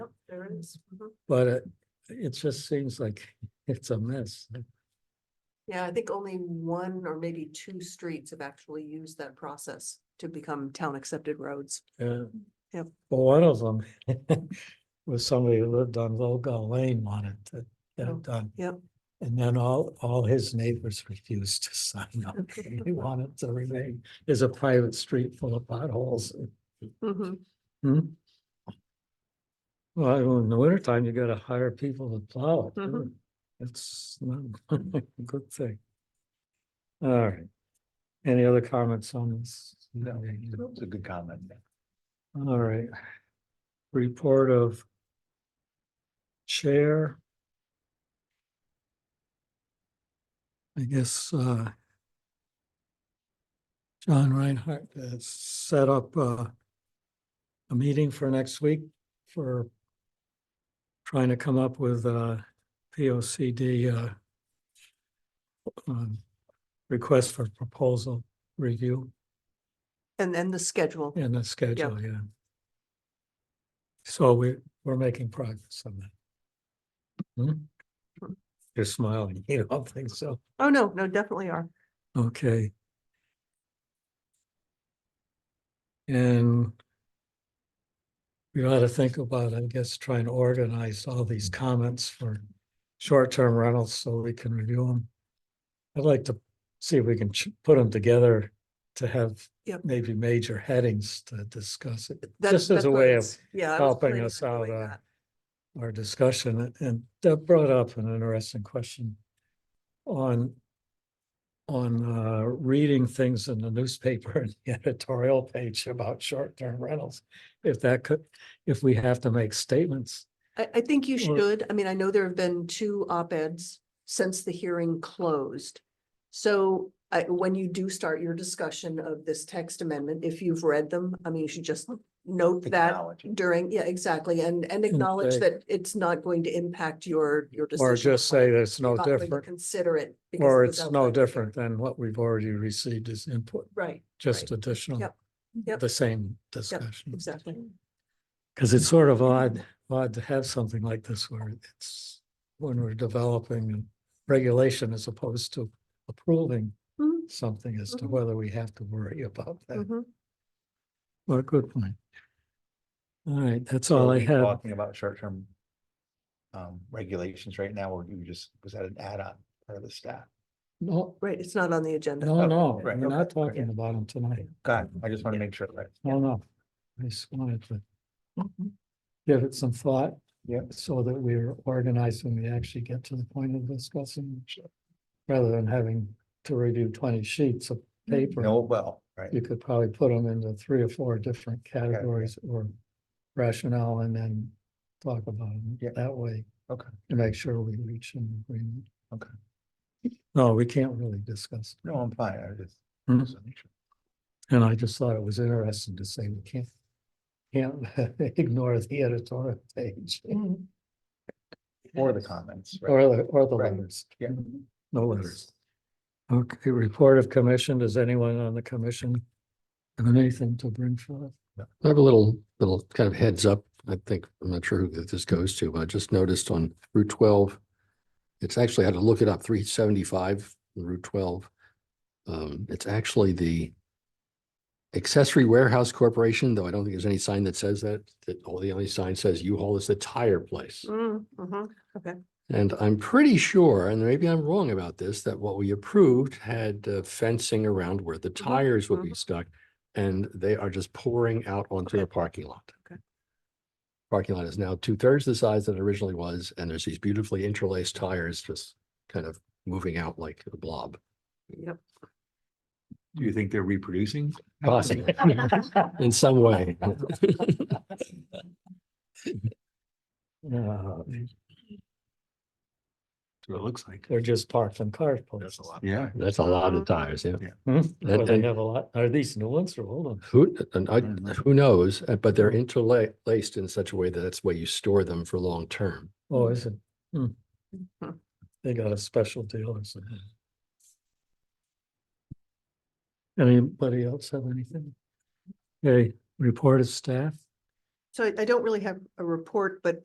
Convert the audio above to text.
things. Mhm. but it, it just seems like it's a mess. Yeah, I think only one or maybe two streets have actually used that process to become town accepted roads. Yeah. Yep. But one of them was somebody who lived on Volga Lane wanted to get Oh, it done. yep. And then all, all his neighbors refused to sign up. He wanted to remain, there's a private street full of potholes. Mhm. Hmm? Well, in the wintertime, you gotta hire people to plow it. Mhm. too. It's not a good thing. All right. Any other comments on this? No, it's a good comment. All right. Report of chair. I guess, uh, John Reinhardt has set up, uh, a meeting for next week for trying to come up with, uh, P O C D, uh, um, request for proposal review And then the schedule. in the schedule, yeah. So we, we're making progress on that. Hmm? You're smiling, you don't think so, Oh, no, no, definitely are. okay. And we ought to think about, I guess, trying to organize all these comments for short-term rentals so we can review them. I'd like to see if we can ch- put them together to have Yep. maybe major headings to discuss it. That's- Just as that's a what I way was- of yeah, I was helping planning us on doing out, uh, that. our discussion, and Deb brought up an interesting question on on uh, reading things in the newspaper and the editorial page about short-term rentals. If that could, if we have to make statements, I, I think you Or- should. I mean, I know there have been two op-eds since the hearing closed. So I, when you do start your discussion of this text amendment, if you've read them, I mean, you should just note that Acknowledge it. during, yeah, exactly, and, and acknowledge say- that it's not going to impact your, your decision. or just whether say that it's no you're not going to different, Consider it. because or it was it's no outside the hearing. different than what we've already received as input, Right, just additional, Yep. Yep. the same discussion. exactly. Because it's sort of odd, odd to have something like this where it's, when we're developing regulation as opposed to approving Mhm. something as to Mhm. whether we have to worry about that. Mhm. Well, good point. All right, that's So all are I we have. Talking about short-term um, regulations right now, or you just, was that an add-on part of the staff? No, Right, it's not on the agenda. no, Okay, no, we're Oh, right, not okay, right. talking about them tonight. God, I just want to make sure, right? No, no. I just wanted to give it some thought. Yeah. So that we're organized when we actually get to the point of discussing. Rather than having to review twenty sheets of paper. Mm-hmm. No, well, right, you could probably put them into three or four different categories or rationale and then talk about them Yeah. that way. Okay. To make sure we reach an agreement. Okay. No, we can't really discuss. no, I'm fine, I just. Mhm. just wanna make sure. And I just thought it was interesting to say we can't, can't ignore the editorial page Or the comments, right? or the, or the Right. letters. Yeah. No letters. Okay, report of commission. Does anyone on the commission have anything to bring forth? I have a little, little kind of heads up. I think, I'm not sure who this goes to, but I just noticed on Route twelve. It's actually, I had to look it up, three seventy-five, Route twelve. Um, it's actually the accessory warehouse corporation, though I don't think there's any sign that says that, that all the only sign says U-Haul is the tire place. Mm, mhm. And I'm pretty sure, and maybe I'm wrong about this, that what we approved had uh, fencing around where the tires would be mhm. stuck. And they are just pouring out onto the parking lot. Okay. Parking lot is now two thirds the size that it originally was, and there's these beautifully interlaced tires just kind of moving out like a blob. Yep. Do you think they're reproducing? Possibly. Uh-huh. In some way. No, That's what it looks like. they're just parked in cars. places. Yeah. That's a lot Uh-huh. of tires, yeah. Hmm? That- Well, they and- have a lot, are these new ones or old ones? Who, and I, Mm. don't know. who knows, uh, but they're Mm-hmm. interlaced in such a way that that's the way you store them for long term. Oh, is it? Hmm. Mhm. They got a special deal or something. Anybody else have anything? Okay, report of staff? So I, I don't really have a report, but